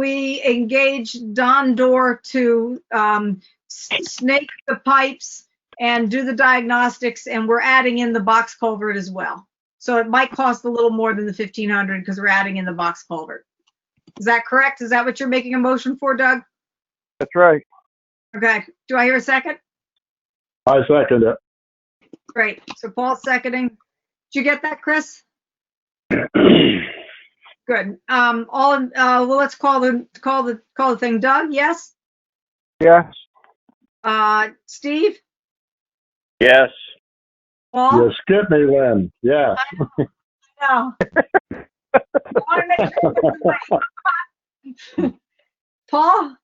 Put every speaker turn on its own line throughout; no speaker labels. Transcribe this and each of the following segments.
we engage Don Door to um, s- snake the pipes and do the diagnostics, and we're adding in the box culvert as well. So it might cost a little more than the 1,500 because we're adding in the box culvert. Is that correct? Is that what you're making a motion for, Doug?
That's right.
Okay, do I hear a second?
I second it.
Great, so Paul's seconding. Did you get that, Chris? Good. Um, all, in- uh, well, let's call the, call the, call the thing. Doug, yes?
Yes.
Uh, Steve?
Yes.
Paul?
You skipped me, Lynn. Yeah.
No. I wanna make sure it was right. Paul?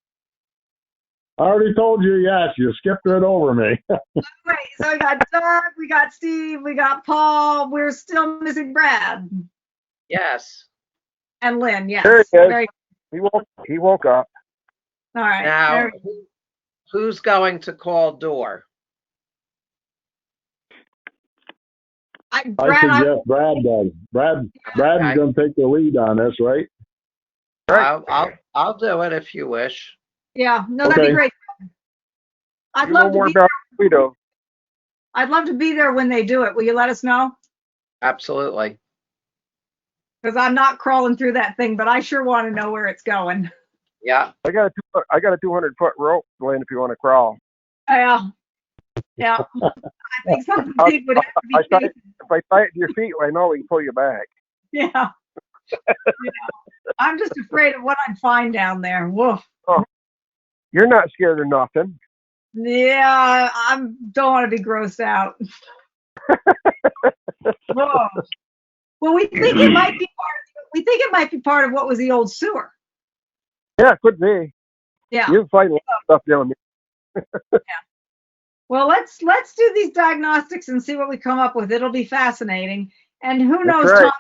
I already told you yes. You skipped right over me.
Wait, so we got Doug, we got Steve, we got Paul, we're still missing Brad
Yes.
and Lynn, yes.
There he is.
Very-
He woke, he woke up.
All right.
Now,
Very-
who- who's going to call door?
I-
I
Brad, I-
suggest Brad does. Brad,
Okay.
Brad's gonna take the lead on this, right?
Right.
I'll, I'll, I'll do it if you wish.
yeah, no, that'd be
Okay.
great. I'd
You
love
were
to be
warmed up, we do.
I'd love to be there when they do it. Will you let us know?
Absolutely.
Because I'm not crawling through that thing, but I sure want to know where it's going.
Yeah.
I got a, two- I got a 200 foot rope, Lynn, if you want to crawl.
Yeah. Yeah. I think something
I-
big would have to be.
I thought-
taken.
If I tie it to your feet, I know we can pull you back.
Yeah. Yeah. I'm just afraid of what I'd find down there. Woof.
You're not scared of nothing.
Yeah, I don't want to be grossed out. Whoa. Well, we think it might be part of, we think it might be part of what was the old sewer.
Yeah, it could be.
Yeah.
You'll find a lot of stuff down there.
Well, let's let's do these diagnostics and see what we come up with. It'll be fascinating. And who
That's
knows,
right.
Tom,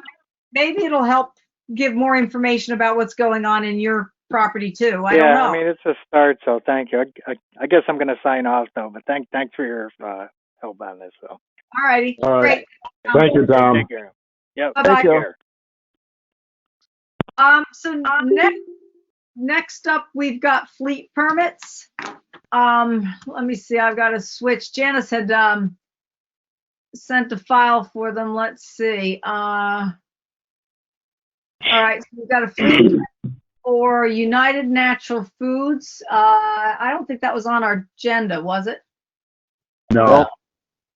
maybe it'll help give more information about what's going on in your property too. I
yeah,
don't know.
I mean it's a start, so thank you. I, I, I guess I'm going to sign off though, but thank thanks for your uh, help on this. So
All righty.
All right.
Great.
Thank you,
Um,
Tom.
take care. Yep,
Bye-bye.
take care.
Um, so next, next up, we've got fleet permits. Um, let me see, I've got to switch. Janice had, um, sent a file for them. Let's see, uh. All right, so we've got a fleet for United Natural Foods. Uh, I don't think that was on our agenda, was it?
No.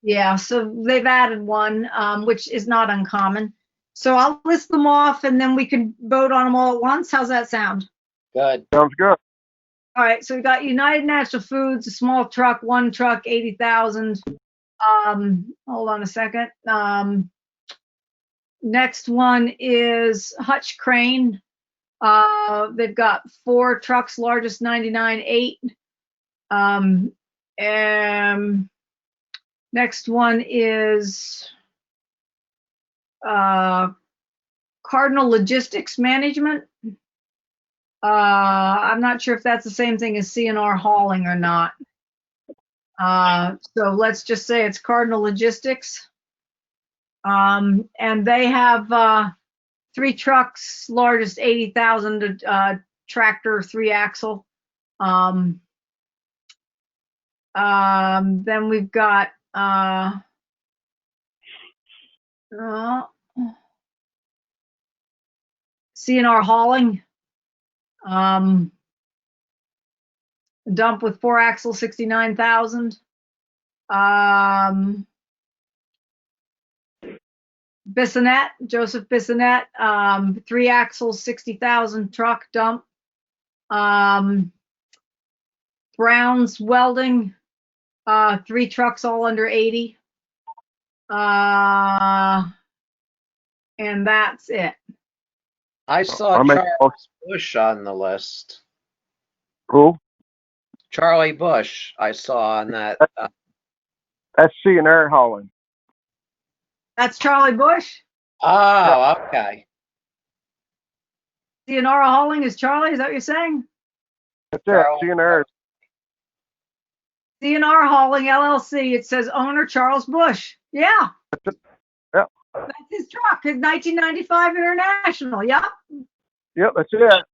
Yeah, so they've added one, um, which is not uncommon. So I'll list them off and then we can vote on them all at once. How's that sound?
Good.
Sounds good.
All right, so we got United Natural Foods, a small truck, one truck, eighty thousand. Um, hold on a second. Um, next one is Hutch Crane. Uh, they've got four trucks, largest ninety-nine eight. Um, um, next one is uh, Cardinal Logistics Management. Uh, I'm not sure if that's the same thing as CNR hauling or not. Uh, so let's just say it's Cardinal Logistics. Um, and they have, uh, three trucks, largest eighty thousand, uh, tractor, three axle. Um, um, then we've got, uh, uh, CNR hauling. Um, dump with four axle, sixty-nine thousand. Um, Bissonette, Joseph Bissonette, um, three axles, sixty thousand truck dump. Um, Brown's Welding, uh, three trucks, all under eighty. Uh, and that's it.
I saw
Oh,
I'll make-
Charles Bush on the list.
Who?
Charlie Bush, I saw on that. uh,
That's CNR hauling.
That's Charlie Bush.
Oh, okay.
Theonora Hauling is Charlie, is that what you're saying?
That's
Carol.
it. CNR.
DNR Hauling LLC, it says owner Charles Bush. Yeah.
Yep.
That's his truck, his 1995 International, yep.
Yep, that's it.